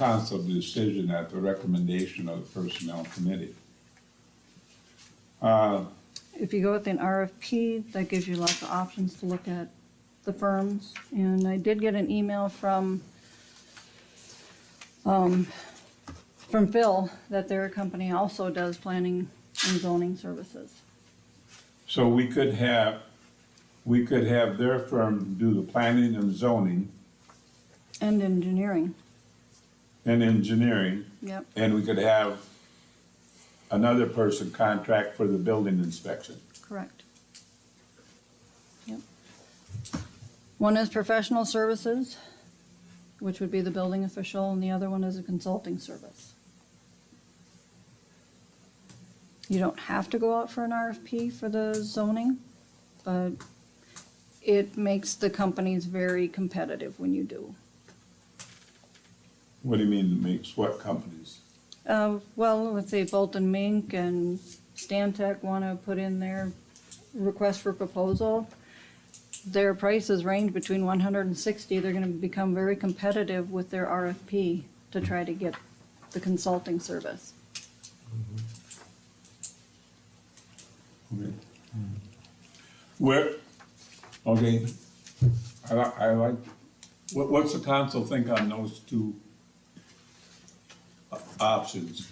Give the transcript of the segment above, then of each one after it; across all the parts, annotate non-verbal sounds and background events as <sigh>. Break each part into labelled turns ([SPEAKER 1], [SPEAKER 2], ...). [SPEAKER 1] council decision at the recommendation of the personnel committee. Uh,
[SPEAKER 2] If you go with an RFP, that gives you lots of options to look at the firms. And I did get an email from, um, from Phil that their company also does planning and zoning services.
[SPEAKER 1] So we could have, we could have their firm do the planning and zoning
[SPEAKER 2] And engineering,
[SPEAKER 1] and engineering,
[SPEAKER 2] yep,
[SPEAKER 1] and we could have another person contract for the building inspection.
[SPEAKER 2] correct. Yep. One is professional services, which would be the building official, and the other one is a consulting service. You don't have to go out for an RFP for the zoning, but it makes the companies very competitive when you do.
[SPEAKER 1] What do you mean makes what companies?
[SPEAKER 2] Uh, well, let's say Bolton Mink and Stantec want to put in their request for proposal. Their prices range between one hundred and sixty. They're going to become very competitive with their RFP to try to get the consulting service.
[SPEAKER 1] Okay. Where, okay, I li- I like, what, what's the council think on those two o- options?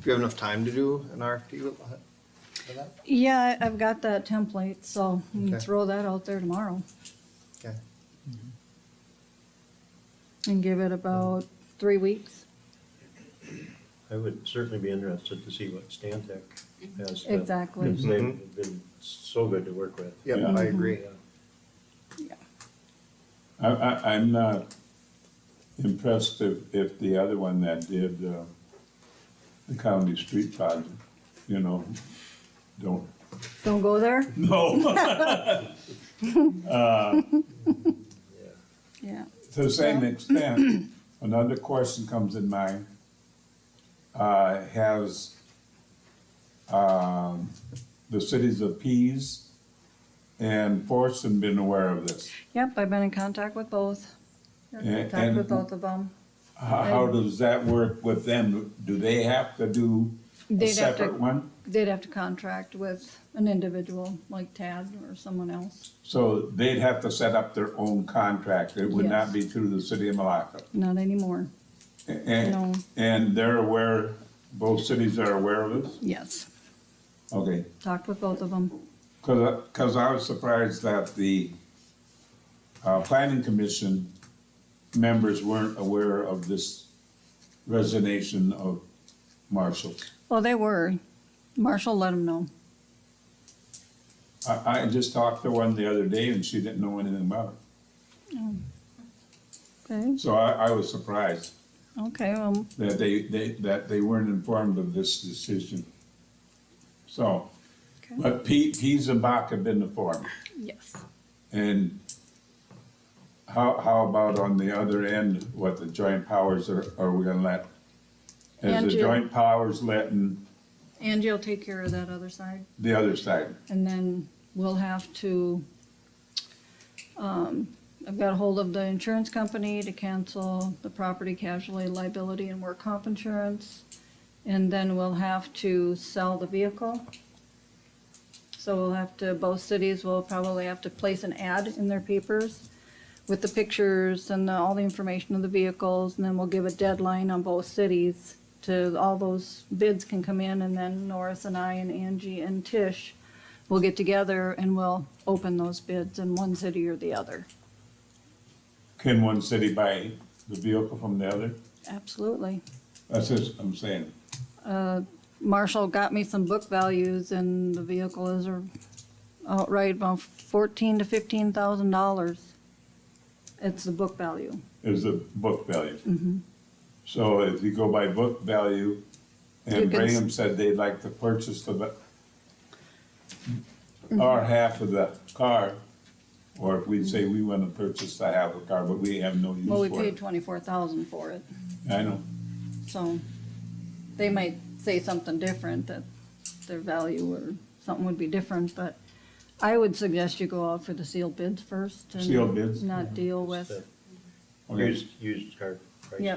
[SPEAKER 3] Do you have enough time to do an RFP with for that?
[SPEAKER 2] Yeah, I- I've got that template, so we can
[SPEAKER 3] Okay.
[SPEAKER 2] throw that out there tomorrow
[SPEAKER 3] Okay.
[SPEAKER 2] and give it about three weeks.
[SPEAKER 4] I would certainly be interested to see what Stantec has. to-
[SPEAKER 2] Exactly.
[SPEAKER 4] because They've been so good to work with.
[SPEAKER 3] Yep,
[SPEAKER 1] Yeah.
[SPEAKER 3] I agree.
[SPEAKER 1] I, I, I'm not impressed if, if the other one that did, uh, the county street project, you know, don't,
[SPEAKER 2] Don't go there?
[SPEAKER 1] Mm-hmm.
[SPEAKER 2] <laughs>
[SPEAKER 1] no.
[SPEAKER 4] Yeah.
[SPEAKER 2] Yeah.
[SPEAKER 1] To the same extent, another question comes in mind. Uh, has, um, the cities of Pease and Forson been aware of this?
[SPEAKER 2] Yep, I've been in contact with both. I've been in
[SPEAKER 1] And-
[SPEAKER 2] Contact with
[SPEAKER 1] and-
[SPEAKER 2] both of them.
[SPEAKER 1] How, how does that work with them? Do they have to do a
[SPEAKER 2] They'd have to-
[SPEAKER 1] separate one?
[SPEAKER 2] They'd have to contract with an individual like Tad or someone else,
[SPEAKER 1] So they'd have to set up their own contract, it would not
[SPEAKER 2] Yes.
[SPEAKER 1] be through the city of Malacca.
[SPEAKER 2] not anymore. No.
[SPEAKER 1] And, and they're aware, both cities are aware of this?
[SPEAKER 2] Yes,
[SPEAKER 1] Okay,
[SPEAKER 2] talked with both of them.
[SPEAKER 1] cause, I- cause I was surprised that the, uh, planning commission members weren't aware of this resignation of Marshall.
[SPEAKER 2] Well, they were. Marshall let them know.
[SPEAKER 1] I, I just talked to one the other day and she didn't know anything about it,
[SPEAKER 2] Okay,
[SPEAKER 1] so I, I was surprised.
[SPEAKER 2] okay, um, well,
[SPEAKER 1] that they, they, that they weren't informed of this decision. So,
[SPEAKER 2] okay.
[SPEAKER 1] but Pete, Pease and Bach have been informed,
[SPEAKER 2] yes.
[SPEAKER 1] and how, how about on the other end, what the joint powers are, are we gonna let? Is
[SPEAKER 2] Andrew.
[SPEAKER 1] the joint powers letting
[SPEAKER 2] Angie will take care of that other side,
[SPEAKER 1] the other side?
[SPEAKER 2] and then we'll have to, um, I've got hold of the insurance company to cancel the property casualty liability and work comp insurance. And then we'll have to sell the vehicle. So we'll have to, both cities will probably have to place an ad in their papers with the pictures and the- all the information of the vehicles, and then we'll give a deadline on both cities to, all those bids can come in, and then Norris and I and Angie and Tish will get together and we'll open those bids in one city or the other.
[SPEAKER 1] Can one city buy the vehicle from the other?
[SPEAKER 2] Absolutely.
[SPEAKER 1] That's just, I'm saying,
[SPEAKER 2] Marshall got me some book values, and the vehicle is a- outright about fourteen to fifteen thousand dollars. It's the book value.
[SPEAKER 1] is the book value.
[SPEAKER 2] Mm-hmm.
[SPEAKER 1] So if you go by book value,
[SPEAKER 2] You
[SPEAKER 1] and
[SPEAKER 2] can s-
[SPEAKER 1] Brigham said they'd like to purchase the,
[SPEAKER 2] Mm-hmm.
[SPEAKER 1] ba- our half of the car, or if we say we wanna purchase the half of the car, but we have no
[SPEAKER 2] Well, we
[SPEAKER 1] use for
[SPEAKER 2] paid
[SPEAKER 1] it.
[SPEAKER 2] twenty-four thousand for it.
[SPEAKER 1] I know,
[SPEAKER 2] So they might say something different, that their value or something would be different, but I would suggest you go out for the sealed bids first. and
[SPEAKER 1] Sealed bids?
[SPEAKER 2] Not deal with,
[SPEAKER 4] Used, used car
[SPEAKER 5] prices.
[SPEAKER 4] Yeah.